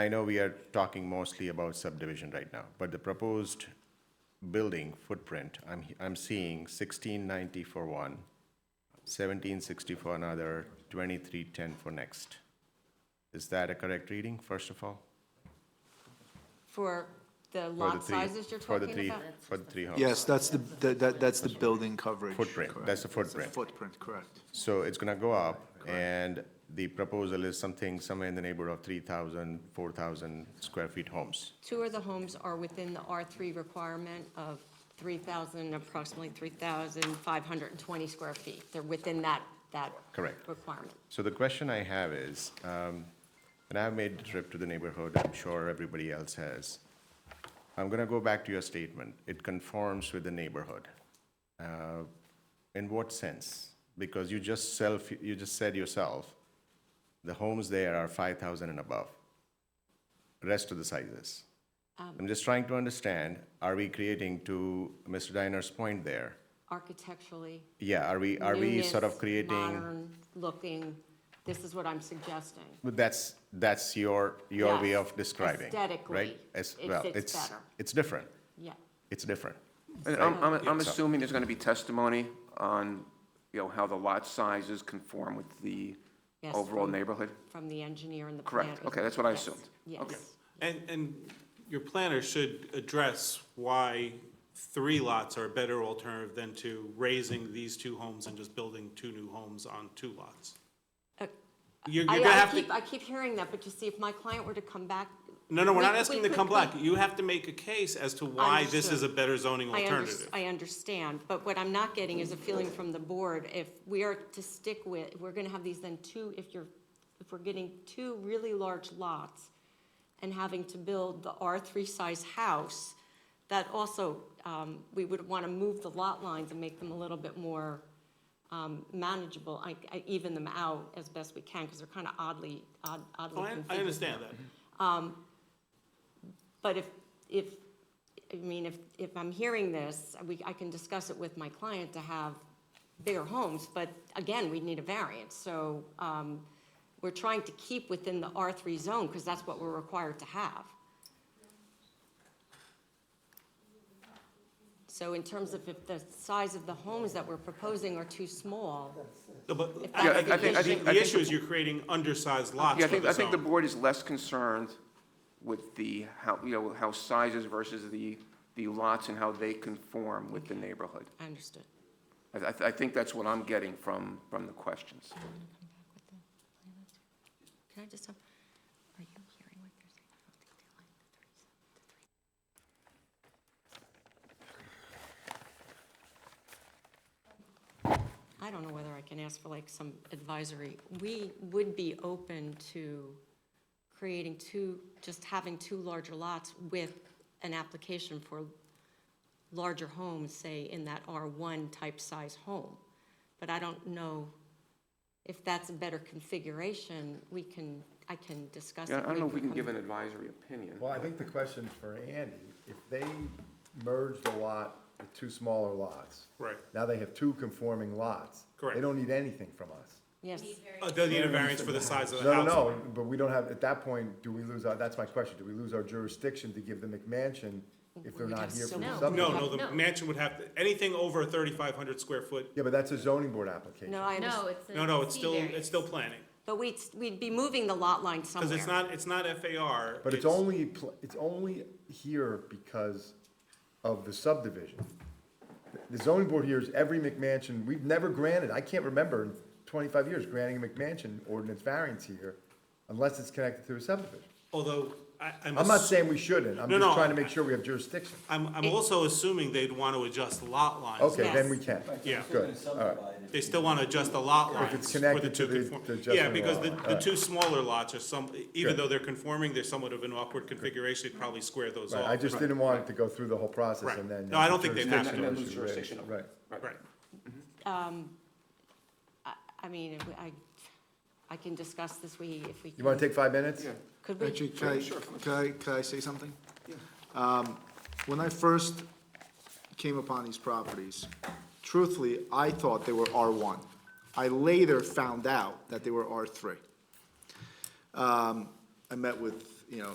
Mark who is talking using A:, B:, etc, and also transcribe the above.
A: I know we are talking mostly about subdivision right now, but the proposed building footprint, I'm, I'm seeing sixteen ninety for one, seventeen sixty for another, twenty-three ten for next. Is that a correct reading, first of all?
B: For the
A: For the
B: lot
A: three-
B: sizes you're
A: for the
B: talking
A: three-
B: about?
A: For the three homes?
C: Yes, that's the, that, that- that's the building coverage.
A: Oh. Footprint,
C: correct.
A: that's the
C: It's
A: footprint.
C: Footprint, correct.
A: So it's gonna go up, and the proposal is something somewhere in the neighborhood of 3,000, 4,000 square feet homes.
B: Two of the homes are within the R3 requirement of 3,000, approximately 3,520 square feet. They're within that, that.
A: Correct.
B: Requirement.
A: So the question I have is, um, and I've made the trip to the neighborhood, I'm sure everybody else has. I'm gonna go back to your statement, it conforms with the neighborhood. Uh, In what sense? Because you just self, you just said yourself, the homes there are 5,000 and above, rest of the sizes. I'm just trying to understand, are we creating, to Mr. Diner's point there,
B: Architecturally,
A: yeah, are we, are we sort of
B: newness,
A: creating?
B: Modern looking, this is what I'm suggesting.
A: But that's, that's your, your way
B: Yes,
A: of describing, right?
B: aesthetically,
A: As,
B: it
A: well,
B: fits
A: it's,
B: better.
A: it's different,
B: Yeah.
A: it's different.
D: And
A: right?
D: I'm, I'm, I'm
A: So-
D: assuming there's gonna be testimony on, you know, how the lot sizes conform with the
B: Yes,
D: overall
B: from-
D: neighborhood?
B: From the engineer and the planner.
D: Correct, okay, that's what I
B: Yes,
D: assumed. Okay.
B: Yes.
E: And, and your planner should address why three lots are a better alternative than to raising these two homes and just building two new homes on two lots.
B: Uh,
E: You're,
B: I,
E: you're gonna
B: I
E: have
B: keep,
E: to,
B: I keep hearing that, but you see, if my client were to come back.
E: no, no, we're
B: we-
E: not
B: we
E: asking to
B: could-
E: come
B: we-
E: back. You have to make a case as to why this
B: Understood.
E: is a better zoning
B: I under-
E: alternative.
B: I understand, but what I'm not getting is a feeling from the board, if we are to stick with, we're gonna have these then two, if you're, if we're getting two really large lots and having to build the R three size house, that also, um, we would wanna move the lot lines and make them a little bit more, um, manageable, I, I even them out as best we can, cause they're kinda oddly, odd-
E: Oh,
B: oddly
E: I,
B: configured.
E: I understand that.
B: But if, if, I mean, if, if I'm hearing this, we, I can discuss it with my client to have bigger homes, but again, we need a variance, so, um, we're trying to keep within the R three zone, because that's what we're required to have. So in terms of if the size of the homes that we're proposing are too small,
E: No, but
B: that's Yeah, I- I the
E: I
B: think- I
E: think,
B: issue- think-
D: I
E: the
D: think
E: issue is you're creating undersized lots
D: Yeah, I
E: for
D: think, I
E: the
D: think the
E: zone.
D: board is less concerned with the, how, you know, how sizes versus the, the lots and how they conform with the neighborhood.
B: I understood.
D: I, I- I think that's what I'm getting from, from the questions.
B: Can I just have, are you hearing what they're saying about the line, the three, the three? I don't know whether I can ask for like some advisory. We would be open to creating two, just having two larger lots with an application for larger homes, say in that R1 type size home. But I don't know if that's a better configuration, we can, I can discuss it.
D: Yeah, I don't know if we can
B: come
D: give an advisory opinion.
F: Well, I think the question for Andy, if they merged a lot with two smaller lots.
E: Right.
F: Now they have two conforming lots.
E: Correct.
F: They don't need anything from us.
B: Yes,
E: Uh, They'll need a variance for the size of the
F: No, no,
E: house.
F: no, but we don't have, at that point, do we lose our, that's my question, do we lose our jurisdiction to give the McMansion if they're
B: would
F: not
B: have
F: here
B: to
F: for the
B: know.
F: subdivision?
E: No, no, the mansion would have, to anything over thirty-five hundred square foot
F: Yeah, but that's a zoning board application.
B: no, I
G: No,
B: understand.
G: it's a.
E: No, no, it's
G: C
E: still,
G: variance.
E: it's still planning,
B: But we'd, we'd be moving the lot line somewhere.
E: because it's not, it's not FAR.
F: But it's only, pl- it's only here because of the subdivision. The zoning board hears every McMansion, we've never granted, I can't remember in twenty-five years granting a McMansion ordinance variance here unless it's connected to a subdivision.
E: Although, I, I'm,
F: I'm not
E: ass-
F: saying we shouldn't, I'm
E: No,
F: just
E: no,
F: trying to make sure we have jurisdiction.
E: I'm, I'm also assuming they'd want to adjust lot lines.
F: Okay, then
B: Yes.
F: we can.
E: Yeah,
F: Good, all right.
E: they still want to adjust the lot lines.
F: it's
E: for the
F: connected
E: two
F: to the-
E: conform-
F: the adjustment
E: Yeah,
F: of
E: because
F: lot
E: the,
F: line,
E: the
F: alright.
E: two smaller lots are some, even
F: Good.
E: though they're conforming, they're somewhat of an awkward configuration, they'd probably square those off.
F: Right, I just didn't want it to go through the whole process
E: Right.
F: and then.
E: No, I don't think they'd have to.
F: jurisdictional
D: And then lose
F: issue, right,
D: jurisdiction over it.
F: Right.
E: Right,
B: I mean, if we- I, I can discuss this, we, if we.
F: You wanna take five minutes?
B: Could we?
C: Actually, can I, can I, can I say something? Um, When I first came upon these properties, truthfully, I thought they were R1. I later found out that they were R3. Um, I met with